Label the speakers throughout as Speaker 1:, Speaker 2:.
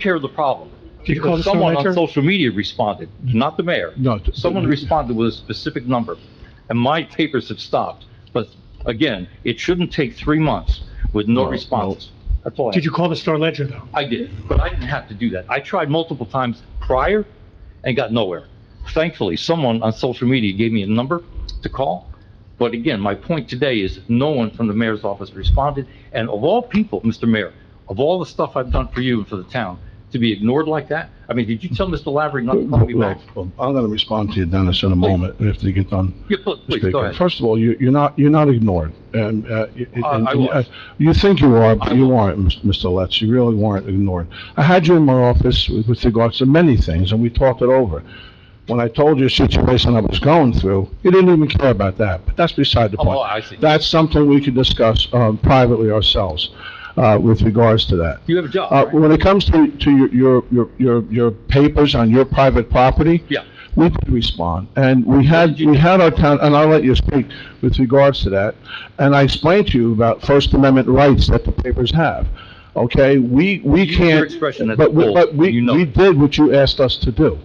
Speaker 1: care of the problem.
Speaker 2: Did you call
Speaker 1: Because
Speaker 2: the
Speaker 1: someone on
Speaker 2: senator?
Speaker 1: social media responded, not the mayor.
Speaker 2: No. t-
Speaker 1: Someone responded with a specific number, and my papers have stopped. But again, it shouldn't take three months with no
Speaker 3: No, no.
Speaker 1: response. That's all I
Speaker 2: Did you call the Star Ledger, though?
Speaker 1: I did, but I didn't have to do that. I tried multiple times prior and got nowhere. Thankfully, someone on social media gave me a number to call. But again, my point today is no one from the mayor's office responded. And of all people, Mr. Mayor, of all the stuff I've done for you and for the town, to be ignored like that? I mean, did you tell Mr. Lavery not to call me back?
Speaker 3: Well, I'm going to respond to you, Dennis, in a moment, if you get done.
Speaker 1: Yeah, pl- Please, go
Speaker 3: speaking.
Speaker 1: ahead.
Speaker 3: First of all, you, you're not, you're not ignored. And, uh, y-
Speaker 1: Uh,
Speaker 3: and-
Speaker 1: I
Speaker 3: and,
Speaker 1: was.
Speaker 3: uh, You think you are,
Speaker 1: I
Speaker 3: but you aren't, Ms- Mr. Letz. You really weren't ignored. I had you in my office with with regards to many things, and we talked it over. When I told you the situation I was going through, you didn't even care about that, but that's beside the
Speaker 1: Oh,
Speaker 3: point.
Speaker 1: I see.
Speaker 3: That's something we could discuss, um, privately ourselves, uh, with regards to that.
Speaker 1: You have a job,
Speaker 3: Uh,
Speaker 1: right?
Speaker 3: when it comes to, to your- your, your, your, your papers on your private property.
Speaker 1: Yeah.
Speaker 3: We did respond, and we had,
Speaker 1: did you
Speaker 3: we had our town, and I'll let you speak with regards to that. And I explained to you about First Amendment rights that the papers have, okay? We, we
Speaker 1: Use
Speaker 3: can't.
Speaker 1: your expression at
Speaker 3: but
Speaker 1: the
Speaker 3: we-
Speaker 1: polls,
Speaker 3: But we,
Speaker 1: you know
Speaker 3: we
Speaker 1: it.
Speaker 3: did what you asked us to do,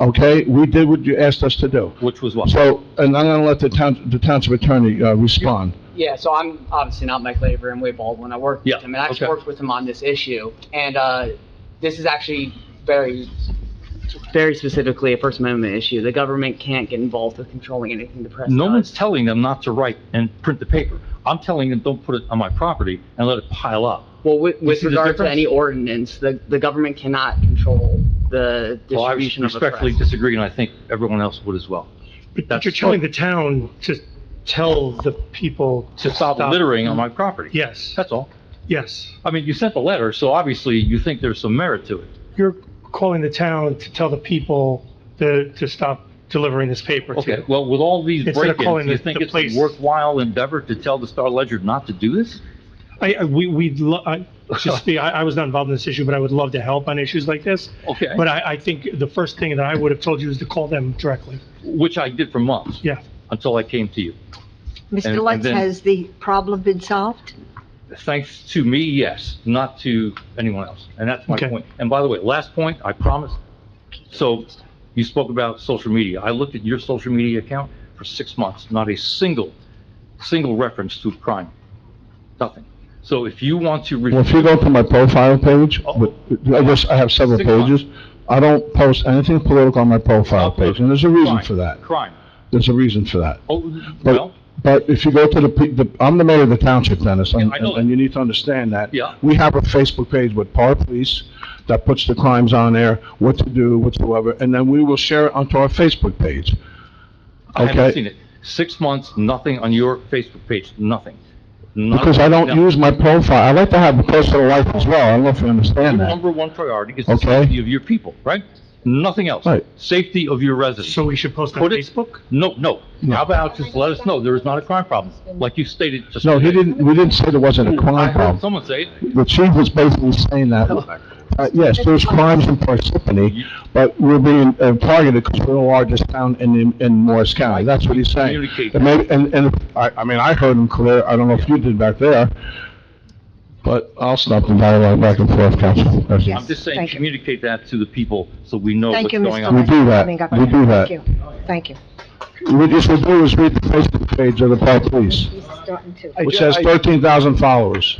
Speaker 3: okay? We did what you asked us to do.
Speaker 1: Which was what?
Speaker 3: So, and I'm gonna let the town, the township attorney, uh, respond.
Speaker 4: Yeah, so I'm obviously not Mike Labor and Wade Baldwin. I work
Speaker 1: Yeah,
Speaker 4: with him, and I actually
Speaker 1: okay.
Speaker 4: worked with him on this issue. And uh, this is actually very, very specifically a First Amendment issue. The government can't get involved with controlling anything the press
Speaker 1: No one's
Speaker 4: does.
Speaker 1: telling them not to write and print the paper. I'm telling them, don't put it on my property and let it pile up.
Speaker 4: Well, with, with
Speaker 1: see the
Speaker 4: regard to
Speaker 1: difference?
Speaker 4: any ordinance, the, the government cannot control the
Speaker 1: Well, I
Speaker 4: distribution of the
Speaker 1: respectfully
Speaker 4: press.
Speaker 1: disagree, and I think everyone else would as well.
Speaker 2: But you're telling the town to tell the people.
Speaker 1: To stop littering on
Speaker 2: Mm-hmm.
Speaker 1: my property.
Speaker 2: Yes,
Speaker 1: That's all.
Speaker 2: yes.
Speaker 1: I mean, you sent the letter, so obviously you think there's some merit to it.
Speaker 2: You're calling the town to tell the people to, to stop delivering this paper to.
Speaker 1: Okay, well, with all these
Speaker 2: Instead of
Speaker 1: break-ins,
Speaker 2: calling
Speaker 1: you
Speaker 2: the-
Speaker 1: think
Speaker 2: the
Speaker 1: it's a
Speaker 2: police.
Speaker 1: worthwhile endeavor to tell the Star Ledger not to do this?
Speaker 2: I, I- we, we, lo- I, just be, I, I was not involved in this issue, but I would love to help on issues like this.
Speaker 1: Okay,
Speaker 2: But I, I think the first thing that I would have told you is to call them directly.
Speaker 1: which I did for months,
Speaker 2: Yeah.
Speaker 1: until I came to you. And-
Speaker 5: Mr.
Speaker 1: and
Speaker 5: Lutz,
Speaker 1: then-
Speaker 5: has the problem been solved?
Speaker 1: Thanks to me, yes, not to anyone else. And that's my
Speaker 2: Okay.
Speaker 1: point. And by the way, last point, I promise. So you spoke about social media. I looked at your social media account for six months, not a single, single reference to crime. Nothing. So if you want to.
Speaker 3: Well, if you go to my profile page, with- I just, I have several
Speaker 1: Oh. Six months.
Speaker 3: pages. I don't post anything political on my profile page, and there's a reason
Speaker 1: Crime,
Speaker 3: for that.
Speaker 1: Crime.
Speaker 3: There's a reason for that.
Speaker 1: Oh,
Speaker 3: But-
Speaker 1: well,
Speaker 3: But if you go to the pe- the, I'm the mayor of the township, Dennis, and,
Speaker 1: Yeah, I know
Speaker 3: and you need to understand that.
Speaker 1: Yeah.
Speaker 3: We have a Facebook page with Par Police that puts the crimes on there, what to do, whatsoever, and then we will share it onto our Facebook page.
Speaker 1: I haven't
Speaker 3: okay.
Speaker 1: seen it. Six months, nothing on your Facebook page, nothing. Not-
Speaker 3: Because I don't
Speaker 1: no.
Speaker 3: use my profile. I like to have a personal life as well. I don't know if you
Speaker 1: Your
Speaker 3: understand that.
Speaker 1: number one priority is the
Speaker 3: Okay.
Speaker 1: safety of your people, right? Nothing else.
Speaker 3: Right.
Speaker 1: Safety of your residents.
Speaker 2: So we should post on
Speaker 1: Put it-
Speaker 2: Facebook?
Speaker 1: No, no.
Speaker 3: No.
Speaker 1: How about just let us know there is not a crime problem, like you stated just.
Speaker 3: No, he
Speaker 1: today.
Speaker 3: didn't, we didn't say there wasn't a
Speaker 1: Hmm, I
Speaker 3: crime
Speaker 1: heard
Speaker 3: problem.
Speaker 1: someone say it.
Speaker 3: The chief was basically saying that, uh, yes, there's crimes in Parsippany, but we're being uh, targeted because we're the largest town in, in Morris County. That's what he's saying.
Speaker 1: Communicate.
Speaker 3: And maybe, and, and, I, I mean, I heard him clear, I don't know if you did back there, but I'll stop the dialogue back and forth, Council. That's-
Speaker 5: Yes.
Speaker 1: I'm just saying,
Speaker 5: Thank you.
Speaker 1: communicate that to the people so we know Oh, what's
Speaker 5: Thank you,
Speaker 1: going
Speaker 5: Mr.
Speaker 1: on.
Speaker 5: Lutz.
Speaker 3: We do
Speaker 5: for
Speaker 3: that.
Speaker 5: coming up.
Speaker 3: We do that.
Speaker 5: Thank you. Thank you.
Speaker 3: What you should do is read the Facebook page of the Park Police,
Speaker 5: He's starting to.
Speaker 6: I
Speaker 3: which
Speaker 6: ju-
Speaker 3: has
Speaker 6: I-
Speaker 3: 13,000 followers.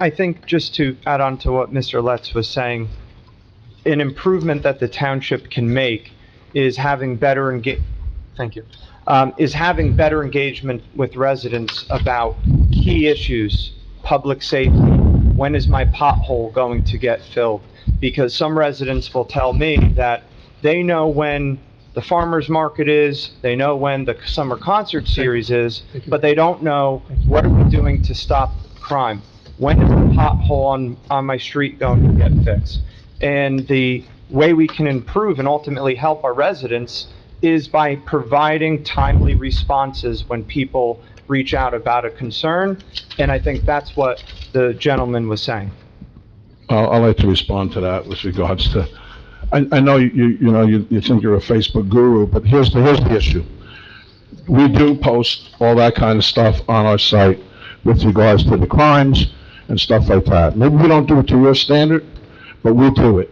Speaker 6: I think just to add on to what Mr. Letz was saying, an improvement that the township can make is having better enga, thank you, um, is having better engagement with residents about key issues, public safety, when is my pothole going to get filled? Because some residents will tell me that they know when the farmer's market is, they know when the summer concert series is,
Speaker 2: Thank you.
Speaker 6: but they don't know what are we doing to stop crime? When is the pothole on, on my street going to get fixed? And the way we can improve and ultimately help our residents is by providing timely responses when people reach out about a concern. And I think that's what the gentleman was saying.
Speaker 3: I'll, I'd like to respond to that with regards to, I, I know you, you know, you, you think you're a Facebook guru, but here's the, here's the issue. We do post all that kind of stuff on our site with regards to the crimes and stuff like that. Maybe we don't do it to your standard, but we do it.